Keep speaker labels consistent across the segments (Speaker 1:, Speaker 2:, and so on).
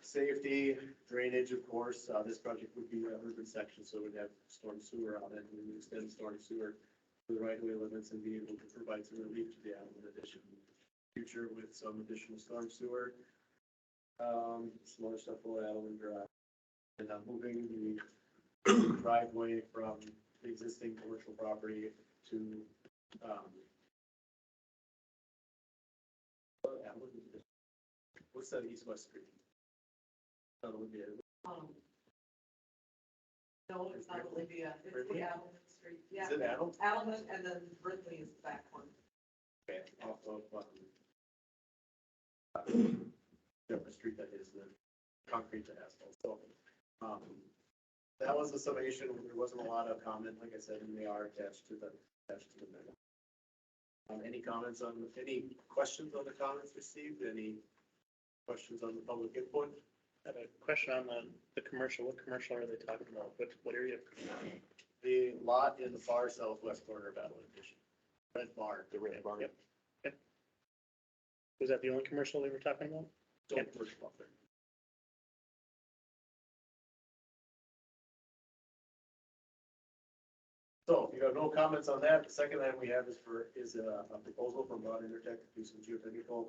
Speaker 1: safety, drainage, of course, uh, this project would be an urban section, so we'd have storm sewer on it, and we'd extend storm sewer to the right-of-way limits and be able to provide some relief to the island in addition, future with some additional storm sewer. Um, some other stuff will add on drive. And I'm moving the driveway from the existing commercial property to, um, what's that east-west street? That would be it.
Speaker 2: Um, No, it's not Olivia, it's the Allen Street, yeah,
Speaker 1: Is it Adams?
Speaker 2: Allen and then Brindley is the back one.
Speaker 1: Okay, off of, um, Jefferson Street that is the concrete to asphalt, so, um, that was the summation, there wasn't a lot of comment, like I said, and they are attached to the, attached to the memo. Um, any comments on, any questions on the comments received, any questions on the public input?
Speaker 3: I have a question on the, the commercial, what commercial are they talking about? What, what area?
Speaker 1: The lot in the far southwest corner of Battle Edition, red bar.
Speaker 4: The red barn.
Speaker 1: Yep.
Speaker 3: Was that the only commercial they were talking about?
Speaker 1: Don't push it off there. So if you have no comments on that, the second item we have is for, is a a proposal from Broad Intertek to do some geotechnical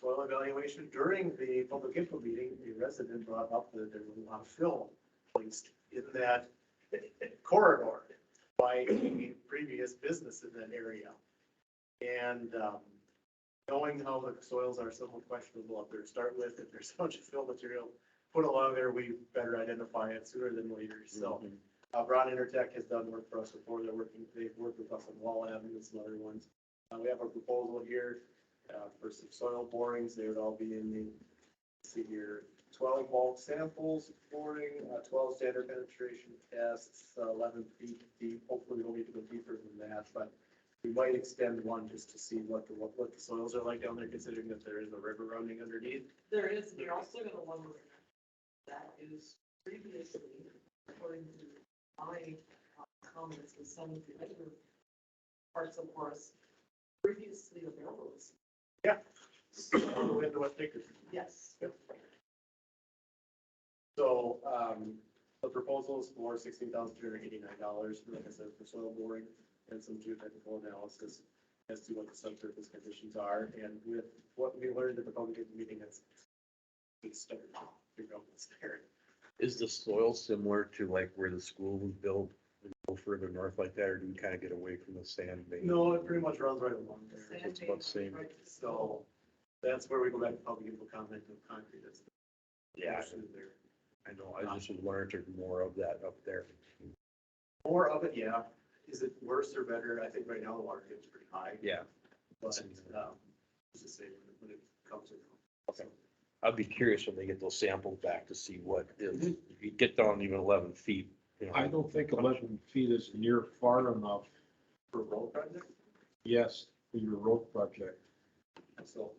Speaker 1: soil evaluation. During the public info meeting, a resident brought up that there was a lot of fill placed in that corridor by a previous business in that area. And um, knowing how the soils are somewhat questionable up there to start with, if there's so much fill material put along there, we better identify it sooner than later. So uh, Brown Intertech has done work for us before. They're working, they've worked with us on Wall Avenue and some other ones. Uh, we have a proposal here, uh, for some soil borings. They would all be in the, let's see here, twelve bulk samples, boring, uh, twelve standard penetration tests, uh, eleven feet deep. Hopefully we don't need to go deeper than that, but we might extend one just to see what the, what, what the soils are like down there, considering that there is a river running underneath.
Speaker 2: There is, they're also gonna lower it. That is previously, according to my uh, comments with some of the other parts of us, previously available.
Speaker 1: All the way into West Acres.
Speaker 2: Yes,
Speaker 1: So, um, the proposal is for sixteen thousand two hundred eighty-nine dollars, like I said, for soil boring and some geotechnical analysis as to what the subsurface conditions are, and with what we learned at the public meeting, it's, it's started, figure out what's there.
Speaker 4: Is the soil similar to like where the school was built and go further north like that, or do you kind of get away from the sand? vein?
Speaker 1: No, it pretty much runs right along
Speaker 2: the
Speaker 1: there.
Speaker 2: sand.
Speaker 4: it's about the same.
Speaker 2: right, so
Speaker 1: So that's where we go back to public info comment of concrete. That's the
Speaker 4: Yeah,
Speaker 1: question there.
Speaker 4: I know. I just was wondering if there's more of that up there.
Speaker 1: More of it, yeah. Is it worse or better? I think right now the water is pretty high,
Speaker 4: Yeah.
Speaker 1: but, um, it's the same when it comes in.
Speaker 4: Okay. I'd be curious when they get those samples back to see what is, if you get down even eleven feet. you know,
Speaker 5: I don't think eleven feet is near far enough,
Speaker 1: For road project,
Speaker 5: yes, for your road project.
Speaker 1: so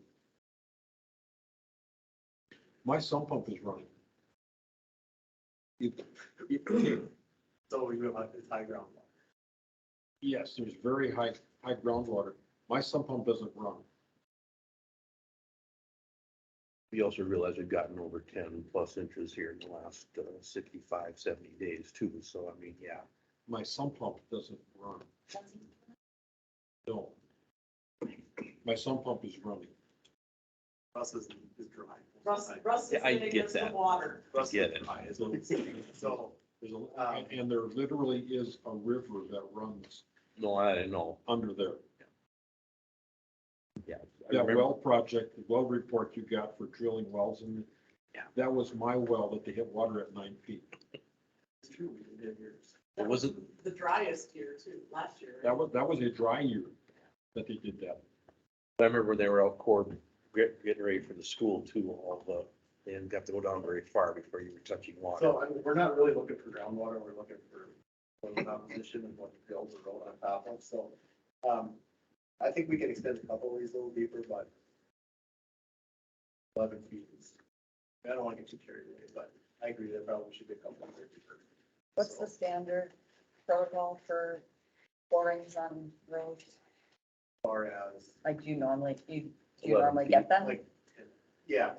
Speaker 5: My sump pump is running. It-
Speaker 1: So we have high- it's high ground.
Speaker 5: Yes, there's very high, high groundwater. My sump pump doesn't run.
Speaker 4: We also realize we've gotten over ten plus inches here in the last uh, 65, 70 days too. So I mean, yeah.
Speaker 5: My sump pump doesn't run. No. My sump pump is running.
Speaker 1: Russ is, is dry.
Speaker 2: Russ, Russ is
Speaker 4: Yeah, I
Speaker 2: sitting
Speaker 4: get
Speaker 2: against the
Speaker 4: that.
Speaker 2: water.
Speaker 1: Russ
Speaker 4: get
Speaker 1: is
Speaker 4: it.
Speaker 1: dry, is what I'm saying. So,
Speaker 5: There's a,
Speaker 4: Um.
Speaker 5: and- and there literally is a river that runs
Speaker 4: No, I know.
Speaker 5: under there.
Speaker 4: Yeah. I
Speaker 5: That
Speaker 4: remember-
Speaker 5: well project, the well report you got for drilling wells and
Speaker 4: Yeah.
Speaker 5: that was my well that they hit water at nine feet.
Speaker 1: it's true, we did have years.
Speaker 2: That
Speaker 4: was it?
Speaker 2: The driest year too, last year.
Speaker 5: That was, that was a dry year that they did that.
Speaker 4: I remember when they were out court, get- getting ready for the school too, all the, they didn't have to go down very far before you were touching water.
Speaker 1: So I mean, we're not really looking for groundwater, we're looking for soil composition and what builds the road on top of, so. Um, I think we can extend a couple of these a little deeper, but eleven feet is, I don't want to get too carried away, but I agree that probably should be a couple of deeper.
Speaker 6: What's the standard protocol for borings on roads?
Speaker 1: Far as.
Speaker 6: Like, do you normally, you, do you
Speaker 4: 11
Speaker 6: normally
Speaker 4: feet,
Speaker 6: get them?
Speaker 1: Like, yeah,